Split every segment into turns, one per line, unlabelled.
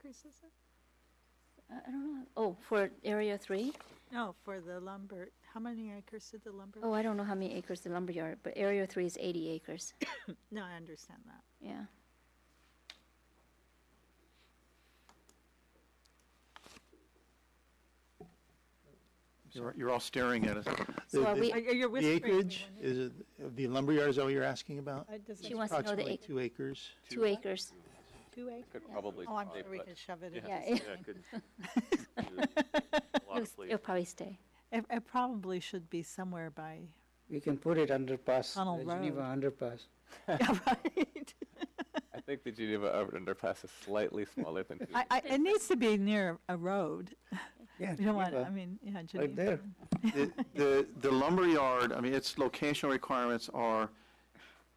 price is it?
I I don't know. Oh, for area three?
No, for the lumber, how many acres did the lumber?
Oh, I don't know how many acres the lumberyard, but area three is eighty acres.
No, I understand that.
Yeah.
You're, you're all staring at us.
So are
the-
we,
Are you
The
Uh, whispering?
acreage, is it, the lumberyard is all you're asking about?
she wants to know the
Approximately
acre,
two acres.
two acres.
Two acres?
Could probably.
Oh, I'm
stay
sure we
put.
could shove it in.
Yeah,
this
it-
Yeah,
thing.
could. A lot
It'll
of
s-
sleep.
it'll probably stay.
It, it probably should be somewhere by,
We can put it underpass,
Tunnel
the Geneva underpass.
yeah, right.
I think the Geneva urban underpass is slightly smaller than.
I, I, it needs to be near a road.
Yeah,
You don't want, I
Geneva,
mean, yeah,
right
Geneva.
there.
The- The the lumberyard, I mean, its locational requirements are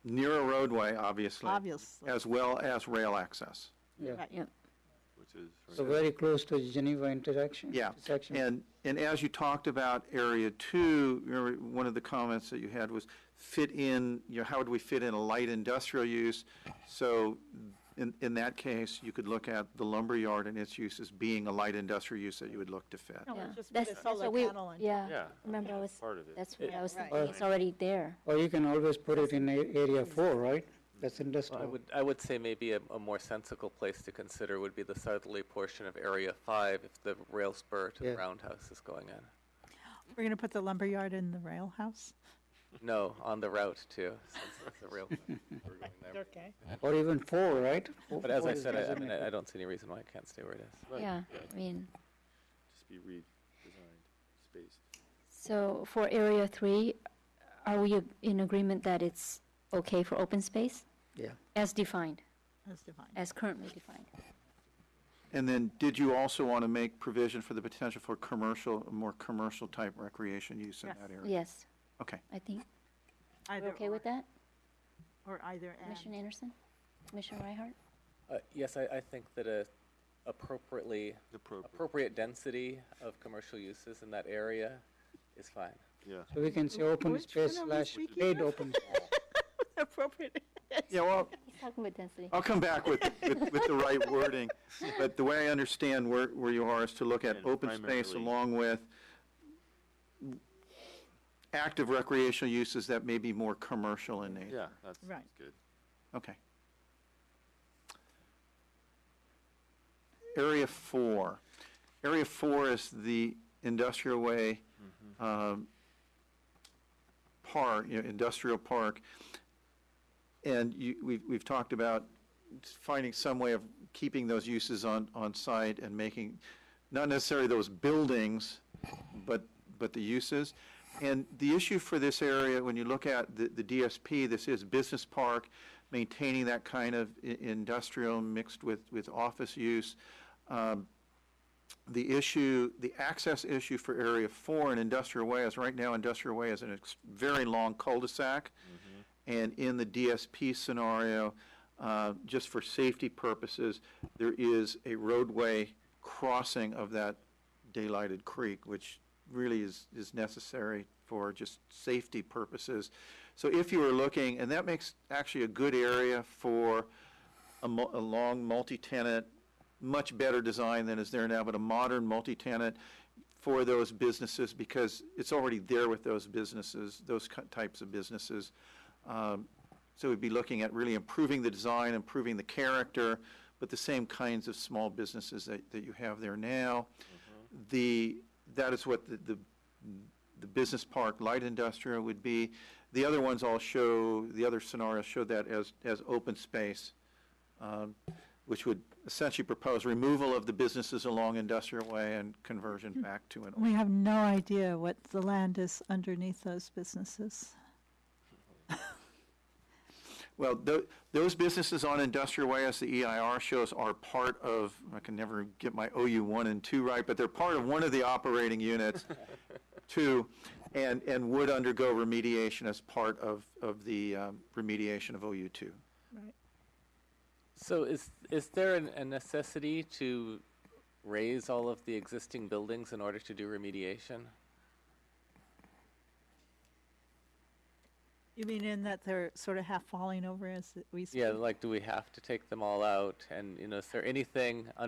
near a roadway, obviously,
Obviously,
as well as rail access.
Yeah,
right.
Which is.
so very close to Geneva interaction.
Yeah,
intersection.
And, and as you talked about Area Two, remember, one of the comments that you had was fit in, you know, how would we fit in a light industrial use? So in, in that case, you could look at the lumberyard and its use as being a light industrial use that you would look to fit.
No,
Yeah.
just put
That's-
a
that's
solar
what we-
panel on.
Yeah,
Yeah.
remember I was,
Part of it.
that's what I was
right.
thinking. It's already there.
Or you can always put it in a- area four, right? That's
Well, I
industrial.
would, I would say maybe a, a more sensical place to consider would be the southerly portion of Area Five if the rail spur to the
Yeah.
roundhouse is going in.
We're gonna put the lumberyard in the rail house?
No, on the route too, since it's a rail. we're going there.
Okay.
Or even four, right? Four-
But as
four
I
is
said, I, I mean,
designated.
I I don't see any reason why it can't stay where it is.
Yeah, I mean,
just be redesigned, spaced.
so for area three, are we ag- in agreement that it's okay for open space?
Yeah.
As defined,
That's divine.
as currently defined.
And then, did you also want to make provision for the potential for commercial, more commercial-type recreation use in
Yes.
that area?
Yes,
Okay.
I think.
Either
We're okay with
or-
that,
Or either
Commissioner
end.
Anderson? Commissioner Reinhardt?
Uh, yes, I, I think that a appropriately, appropriate density of commercial uses in that area is fine.
So we can say open
Which
space
one are we
slash
speaking
paid
of?
open. space.
Appropriate.
Yeah, well,
He's talking about density.
I'll come back with, with, with the right wording, but the way I understand where, where you are is to look at
And
open space
primarily-
along with active recreational uses that may be more commercial in nature.
Yeah, that's,
Right.
that's good.
Okay. Area four. Area four is the industrial way, um, park, you know, industrial park. And you, we've, we've talked about finding some way of keeping those uses on, on site and making, not necessarily those buildings, but, but the uses. And the issue for this area, when you look at the, the DSP, this is business park, maintaining that kind of i- industrial mixed with, with office use. Um, The issue, the access issue for Area Four in Industrial Way is, right now, Industrial Way is an ex- very long cul-de-sac. And in the DSP scenario, uh, just for safety purposes, there is a roadway crossing of that daylighted creek, which really is, is necessary for just safety purposes. So if you were looking, and that makes actually a good area for a mu- a long multi-tenant, much better design than is there now, but a modern multi-tenant for those businesses because it's already there with those businesses, those ki- types of businesses. Um, So we'd be looking at really improving the design, improving the character, but the same kinds of small businesses that, that you have there now. The, that is what the, the, the business park, light industrial would be. The other ones all show, the other scenarios show that as, as open space, um, which would essentially propose removal of the businesses along industrial way and conversion back to an.
We have no idea what the land is underneath those businesses.
Well, tho- those businesses on Industrial Way, as the EIR shows, are part of, I can never get my OU one and two right, but they're part of one of the operating units, two, and, and would undergo remediation as part of, of the um, remediation of OU two.
So is, is there an, a necessity to raise all of the existing buildings in order to do remediation?
You mean in that they're sort of half falling over as we speak?
Yeah, like, do we have to take them all out? And, you know, is there anything